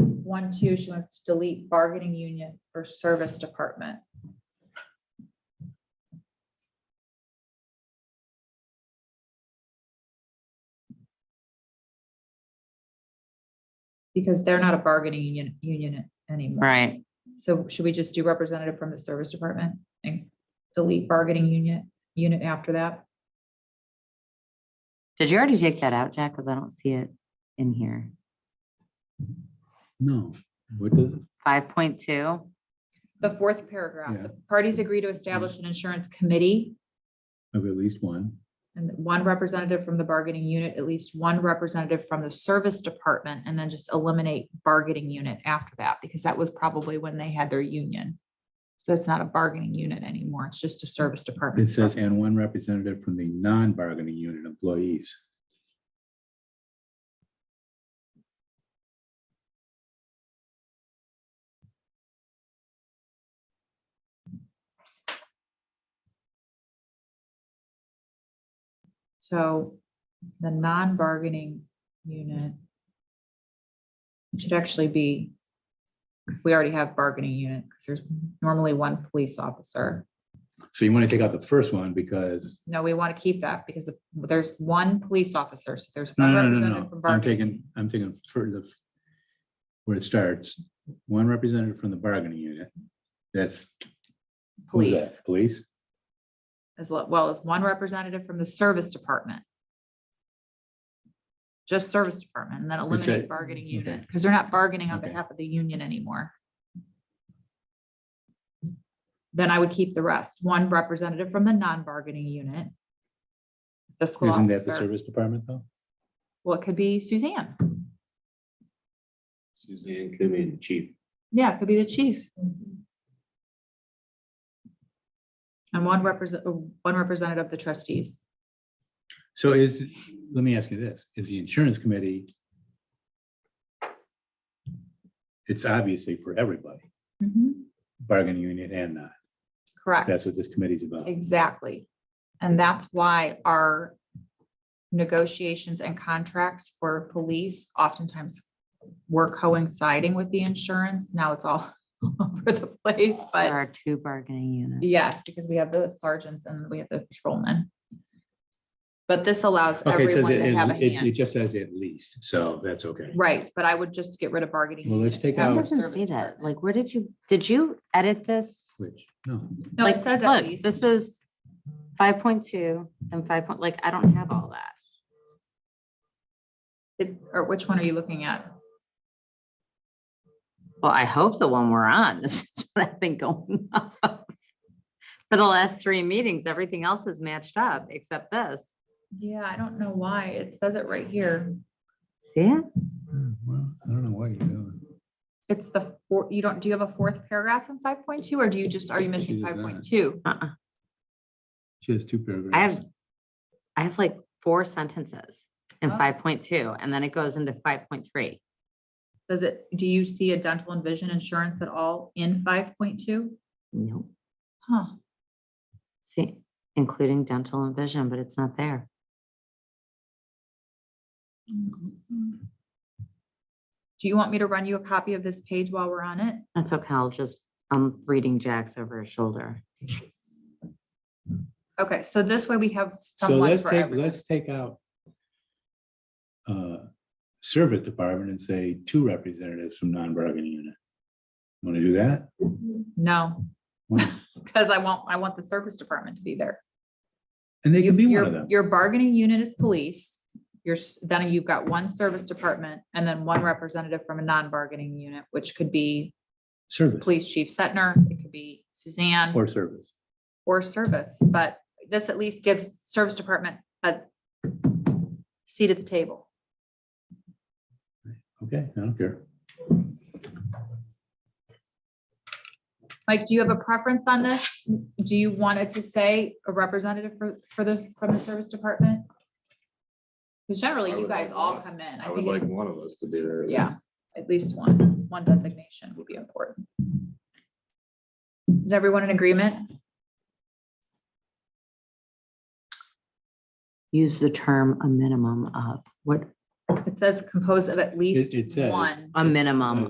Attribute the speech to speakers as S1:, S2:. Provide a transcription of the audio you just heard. S1: one, two, she wants to delete bargaining unit or service department. Because they're not a bargaining union, union anymore.
S2: right.
S1: So should we just do representative from the service department and delete bargaining unit, unit after that?
S2: Did you already take that out, Jack? Because I don't see it in here.
S3: No, what does, it?
S2: Five point two,
S1: The fourth paragraph,
S3: Yeah.
S1: the parties agree to establish an insurance committee
S3: of at least one,
S1: and one representative from the bargaining unit, at least one representative from the service department, and then just eliminate bargaining unit after that, because that was probably when they had their union. So it's not a bargaining unit anymore. It's just a service
S3: it
S1: department.
S3: says, and one representative from the non-bargaining unit employees.
S1: So the non-bargaining unit. it Should actually be, we already have bargaining unit, because there's normally one police officer.
S3: So you want to take out the first one because,
S1: No, we want to keep that because the- there's one police officer, so there's.
S3: no,
S1: one
S3: no, no, no,
S1: representative
S3: no,
S1: from
S3: I'm
S1: bargaining.
S3: taking, I'm taking for the, where it starts, one representative from the bargaining unit. That's. who's
S1: Police,
S3: that? Police,
S1: as lo- well as one representative from the service department. Just service department, and then
S3: Is
S1: eliminate
S3: that-
S1: bargaining
S3: okay.
S1: unit, because they're not bargaining on
S3: Okay.
S1: behalf of the union anymore. Then I would keep the rest, one representative from the non-bargaining unit. Fiscal
S3: isn't that the
S1: officer,
S3: service department though?
S1: well, it could be Suzanne,
S4: Suzanne could be the chief.
S1: yeah, it could be the chief. And one represent, uh, one representative of the trustees.
S3: So is, let me ask you this, is the insurance committee? It's obviously for everybody, bargaining unit and not.
S1: Correct.
S3: That's what this committee's about.
S1: Exactly. And that's why our negotiations and contracts for police oftentimes were coinciding with the insurance. Now it's all over the place,
S2: there
S1: but
S2: are two bargaining units.
S1: yes, because we have the sergeants and we have the patrolmen. But this allows
S3: Okay, it says
S1: everyone
S3: it,
S1: to have a
S3: it it
S1: hand.
S3: just says at least, so that's okay.
S1: Right, but I would just get rid of bargaining.
S3: Well, let's
S1: unit.
S3: take
S1: Have
S3: out-
S2: It
S1: the
S2: doesn't
S1: service
S2: say that.
S1: department.
S2: Like, where did you, did you edit this?
S3: Which, no,
S1: No, it
S2: Like,
S1: says
S2: look,
S1: at least.
S2: This was five point two and five point, like, I don't have all that.
S1: It- Or which one are you looking at?
S2: Well, I hope the one we're on, this is what I've been going off of. For the last three meetings, everything else is matched up except this.
S1: Yeah, I don't know why. It says it right here.
S2: See it?
S3: Hmm, well, I don't know what you're doing.
S1: It's the four, you don't, do you have a fourth paragraph in five point two, or do you just, are you missing
S3: She does
S1: five
S3: not.
S1: point two?
S2: Uh-uh.
S3: She has two
S2: I
S3: paragraphs.
S2: have, I have like four sentences in
S1: Oh.
S2: five point two, and then it goes into five point three.
S1: Does it, do you see a dental and vision insurance at all in five point two?
S2: Nope.
S1: Huh,
S2: See, including dental and vision, but it's not there.
S1: do you want me to run you a copy of this page while we're on it?
S2: That's okay, I'll just, I'm reading Jack's over his shoulder.
S1: Okay, so this way we have
S3: So
S1: someone
S3: let's
S1: for
S3: take,
S1: everyone.
S3: let's take out uh, service department and say two representatives from non-bargaining unit. Want to do that?
S1: No,
S3: Why?
S1: because I want, I want the service department to be there.
S3: And they can be one
S1: Your-
S3: of them.
S1: Your bargaining unit is police, your, s- then you've got one service department, and then one representative from a non-bargaining unit, which could be
S3: Service
S1: police chief Setner, it could be Suzanne
S3: or service.
S1: or service, but this at least gives service department a seat at the table.
S3: Okay, I don't care.
S1: Mike, do you have a preference on this? Do you want it to say a representative for, for the, from the service department? Because generally,
S4: I
S1: you
S4: would
S1: guys
S4: like
S1: all
S4: one.
S1: come in.
S4: I
S1: I
S4: would
S1: think
S4: like
S1: it's-
S4: one of us to be there. at
S1: Yeah,
S4: least.
S1: at least one, one designation would be important. Is everyone in agreement?
S2: Use the term a minimum of, what,
S1: It says composed of at least
S3: it says-
S1: one.
S2: a minimum